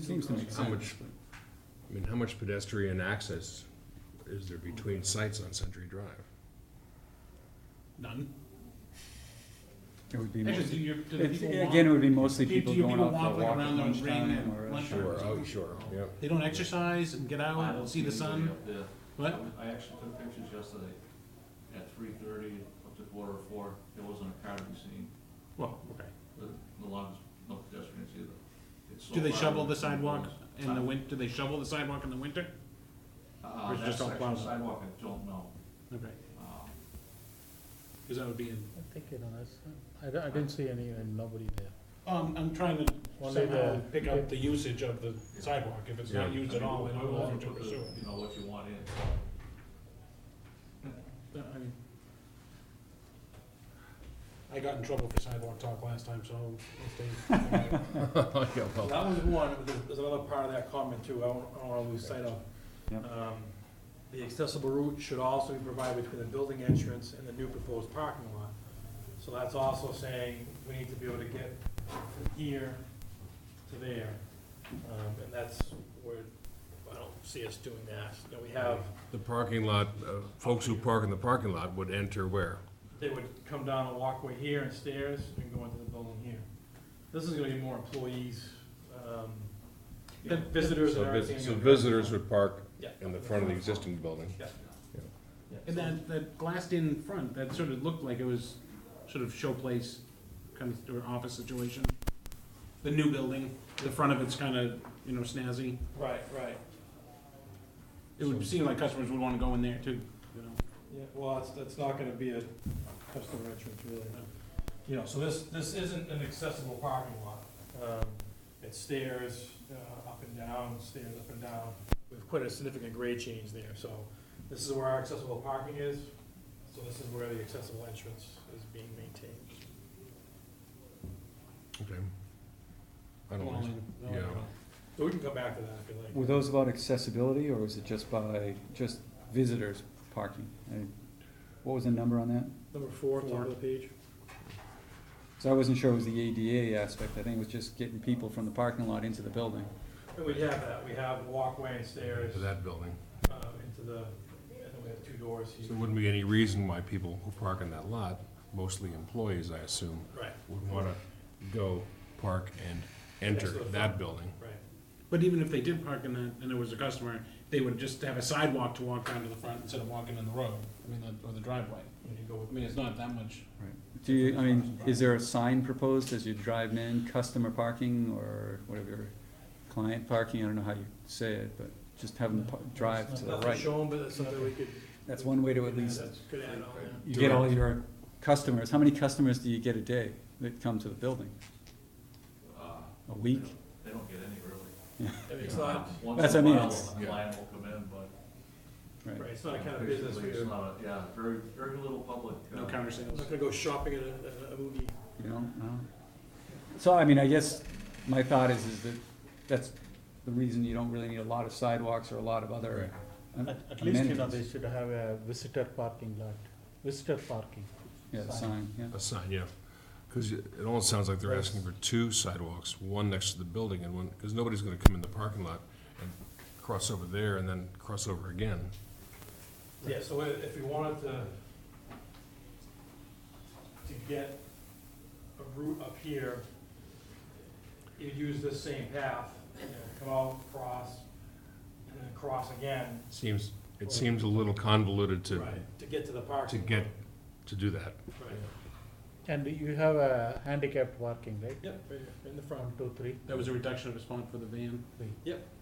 Seems to make How much, sense. I mean, how much pedestrian access is there between sites on Century Drive? None. It would be, That's mostly- just, you're, do the it's- people again, it walk? would be mostly Do- do people your going people out walk, for a like, walk around at the lunchtime rain or. uh, at a- lunchtime? Sure, oh, sure, yeah. They don't exercise and get out and Oh, see the sun? I What? I actually took pictures yesterday at three thirty up to quarter to four. There wasn't a car to be seen, Well, okay. but a lot of, no pedestrians either. It's so Do they far shovel the away from sidewalk roads. in the win, do they shovel the sidewalk in the winter? or Uh, is it that just all section of plowed? sidewalk, I don't know. Okay, Uh, because that would be, in- I think, you know, that's, I, don't- I didn't see any, and nobody there. um, I'm trying to Well, they, somehow uh, pick up the usage of the sidewalk, if it's not Yeah. used I at mean, all, then we'll- I'll we'll offer to put the- pursue it. You know, what you want in. But, I mean, I got in trouble for sidewalk talk last time, so if they, Yeah, well, That was one, but there's- there's another part of that comment too, I don't, I don't wanna lose sight of. Yep. Um, The accessible route should also be provided between the building entrance and the new proposed parking lot. So that's also saying we need to be able to get from here to there. Um, and that's where, I don't see us doing that. You know, we have, The parking lot, uh, folks who park in the parking lot would enter where? they would come down a walkway here and stairs and go into the building here. This is gonna be more employees, um, Then- visitors So and vis- everything. so visitors would park Yeah. in the front of the existing building. and that, that glassed-in front, that sort of looked like it was sort of showplace, kind of, or office situation. The new building, the front of it's kind of, you know, snazzy. Right, right. It would seem like customers would want to go in there too, you know? Yeah, well, it's, it's not gonna be a customer entrance really. You know, so this, this isn't an accessible parking lot. Um, It's stairs, uh, up and down, stairs up and down. We've put a significant grade change there, so this is where our accessible parking is. So this is where the accessible entrance is being maintained. Okay. I don't know. Yeah. So we can come back to that if you like. Were those about accessibility or was it just by, just visitors parking? I- What was the number on that? Number four, top of the page. So I wasn't sure it was the ADA aspect, I think it was just getting people from the parking lot into the building. And we have that, we have walkway and stairs, To that building. uh, into the, and then we have two doors So here. there wouldn't be any reason why people who park in that lot, mostly employees, I assume, Right, would wanna go park and Next to enter the that front. building. right. But even if they did park in that, and there was a customer, they would just have a sidewalk to walk down to the front instead of walking in the road, I mean, the- or the driveway. And you go with I mean, it's not that much. Do you, I mean, is there a sign proposed as you drive in, customer parking or whatever, client parking, I don't know how you say it, but just have them pa- drive to the Nothing right. shown, but that's something we could. That's one way to at least, Could add on there. you get all your customers, how many customers do you get a day that come to the building? uh, A week? They don't get any really. Um, I mean, it's not, That's what I mean, it's- Once in a Yeah. while, a client will come in, but. Right. right, it's not a kind of business where Basically, you're It's not not a, yeah, very, very little public. No uh, counter sales. gonna go shopping at a, at a movie. You don't know? So, I mean, I guess my thought is, is that that's the reason you don't really need a lot of sidewalks or a lot of other am- At, at least, you know, they amenities. should have a visitor parking lot, visitor parking. Yeah, the sign, yeah. A sign, yeah. Because it it almost sounds like they're asking for two sidewalks, one next to the building and one, because nobody's gonna come in the parking lot and cross over there and then cross over again. Yeah, so i- if we wanted to, to get a route up here, you'd use this same path, you know, come out, cross, and then cross again. Seems, it seems a little convoluted to, right, To get to the to parking. get, to do that. Right, And you have a handicapped parking, right? yep, right here, right in the One, front. two, three, That was a reduction of a spot for the van.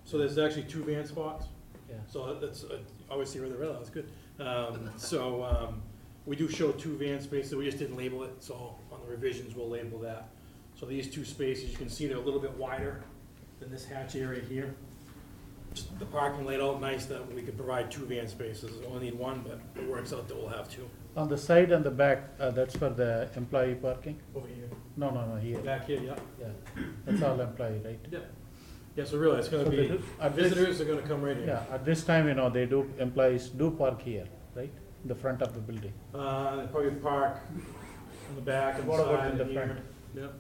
So there's actually two van spots? yeah. So that- that's, uh, obviously where the rail is, good. Um, So um, we do show two van spaces, we just didn't label it, so on the revisions, we'll label that. So these two spaces, you can see they're a little bit wider than this hatch area here. Just The parking laid out nice that we could provide two van spaces, we only need one, but it works out that we'll have two On the side and the back, uh, that's for the employee parking? over here. No, no, no, here, Back here, yeah. yeah. That's all employee, right? Yeah, so really, it's gonna So they be, do- at this- visitors are gonna come right here. Yeah, at this time, you know, they do, employees do park here, right? In the front of the building. Uh, They probably park in the back and What about side in the and front? here. Yep.